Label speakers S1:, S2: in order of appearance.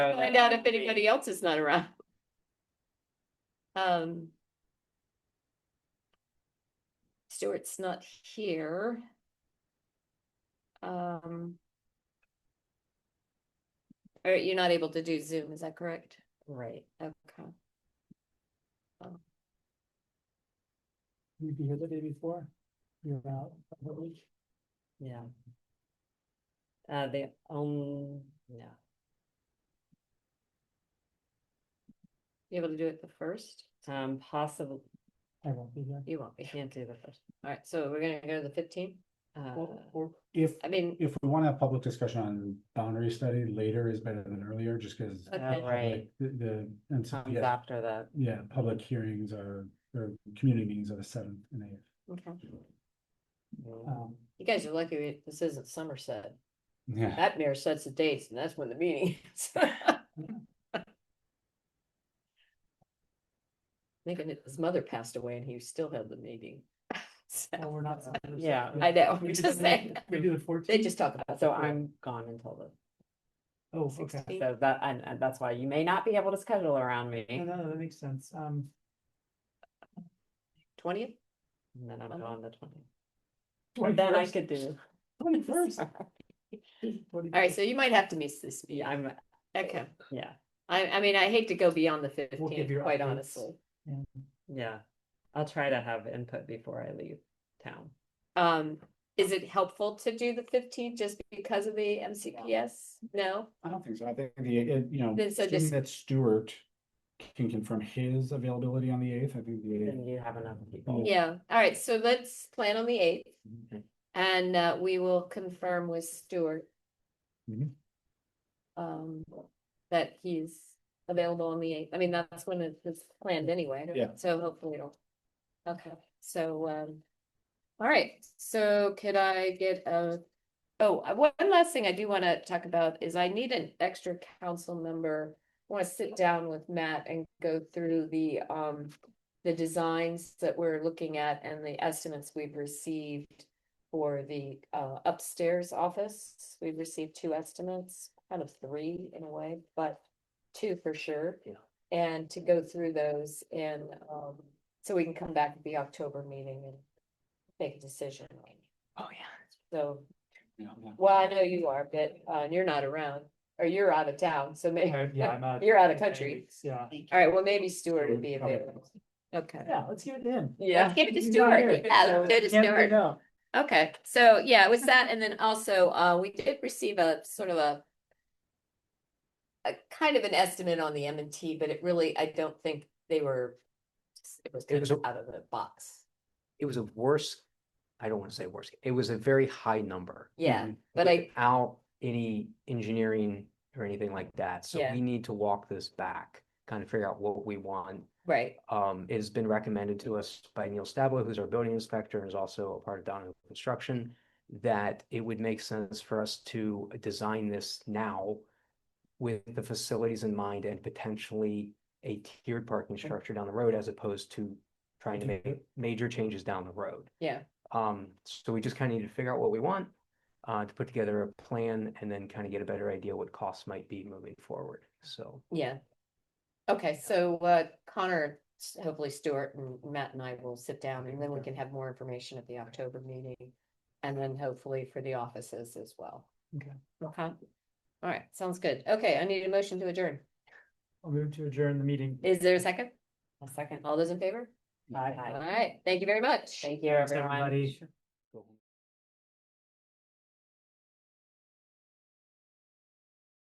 S1: Find out if anybody else is not around. Um. Stuart's not here. Um. Or you're not able to do Zoom, is that correct?
S2: Right.
S1: Okay.
S3: You'd be here the day before. You're out. that week.
S2: Yeah. Uh, the, um, no,
S1: You able to do it the first?
S2: um, possible,
S3: I won't be here.
S1: You won't be.
S2: can't do the first.
S1: All right, so we're gonna go to the fifteen.
S2: Uh,
S3: Or, or if,
S1: I mean,
S4: If we want to have public discussion on boundary study, later is better than earlier, just because.
S1: Okay.
S2: uh, right,
S4: The, the, and so,
S2: comes
S4: yeah,
S2: uh, after that.
S4: yeah, public hearings are, or community meetings are the seventh and eighth.
S1: okay.
S2: mm,
S3: um,
S1: you guys are lucky we- this isn't Somerset.
S4: Yeah,
S1: That mayor sets the dates and that's when the meeting is. Thinking that his mother passed away and he still held the meeting. So,
S3: well, Oh, we're not.
S2: Yeah.
S1: I know,
S3: We
S1: I'm
S3: do
S1: just
S3: the-
S1: saying.
S3: We do the fourteen.
S1: They just talk about.
S2: So
S1: the fourth.
S2: I'm gone until
S3: Oh,
S2: the
S3: okay.
S2: sixteenth, so that, and, and that's why you may not be able to schedule around me.
S3: No,
S2: And
S3: no, that makes sense. Um,
S1: Twentieth?
S2: then I'm
S1: Okay.
S2: gone the twentieth. Then I
S3: 21st,
S2: could do.
S3: 21st,
S1: All right,
S3: 21st.
S1: so you might have to miss this
S2: Yeah,
S1: meeting.
S2: I'm,
S1: Okay,
S2: yeah,
S1: I, I mean, I hate to go beyond the
S3: We'll give
S1: fifteenth,
S3: your
S1: quite
S3: updates.
S1: honestly.
S3: Yeah.
S2: yeah. I'll try to have input before I leave town.
S1: Um, is it helpful to do the fifteenth just because of the MCPS? No?
S4: I don't think so. I think the, it- you know,
S1: Then so
S4: assuming
S1: just-
S4: that Stuart can confirm his availability on the eighth, I think the eighth.
S2: Then you have enough people.
S1: Yeah, all right, so let's plan on the eighth.
S2: Okay.
S1: And uh, we will confirm with Stuart.
S4: Mhm.
S1: Um, that he's available on the eighth, I mean, that's when it was planned anyway.
S4: Yeah.
S1: So hopefully it'll, okay, so, um. All right, so could I get a, oh, uh, one last thing I do wanna talk about is I need an extra council member. I Wanna sit down with Matt and go through the, um, the designs that we're looking at and the estimates we've received for the uh, upstairs office. We've received two estimates, kind of three in a way, but two for sure.
S2: Yeah.
S1: And to go through those and um, so we can come back at the October meeting and make a decision.
S2: Oh, yeah.
S1: So,
S4: Yeah, yeah.
S1: well, I know you are, but uh, you're not around or you're out of town, so maybe,
S3: Uh, Yeah, I'm out.
S1: You're out of
S3: in ten
S1: country.
S3: weeks, Yeah,
S1: all right, well, maybe Stuart would be
S4: Okay.
S1: available. Okay.
S3: yeah, let's give it to him.
S1: Yeah. Give it to
S3: He's not here,
S1: Stuart. Yeah,
S3: so
S1: let's go to
S3: can't
S1: Stuart.
S3: say no.
S1: Okay, so yeah, it was that, and then also, uh, we did receive a sort of a. A kind of an estimate on the M and T, but it really, I don't think they were. It was
S5: It
S1: kind
S5: was
S1: of
S5: a-
S1: out of the box,
S5: it was a worse, I don't want to say worse, it was a very high number. Mm-hmm.
S1: yeah, but I,
S5: Without any engineering or anything like that, so
S1: Yeah.
S5: we need to walk this back, kind of figure out what we want.
S1: right,
S5: Um, it has been recommended to us by Neil Stablo, who's our building inspector and is also a part of Donovan Construction, that it would make sense for us to design this now with the facilities in mind and potentially a tiered parking structure down the road as opposed to trying to make major changes down the road.
S1: Yeah.
S5: Um, so we just kind of need to figure out what we want, uh, to put together a plan and then kind of get a better idea what costs might be moving forward, so.
S1: yeah. Okay, so, uh, Connor, s- hopefully Stuart and Matt and I will sit down, and then we can have more information at the October meeting. And then hopefully for the offices as well.
S3: Okay.
S1: Okay, all right, sounds good, okay, I need a motion to adjourn,
S3: I'll move to adjourn the meeting.
S1: is there a second?
S2: A second.
S1: All those in favor?
S3: Aye.
S1: All right, thank you very much.
S2: Thank you,
S3: Thanks,
S2: everyone.
S3: everybody.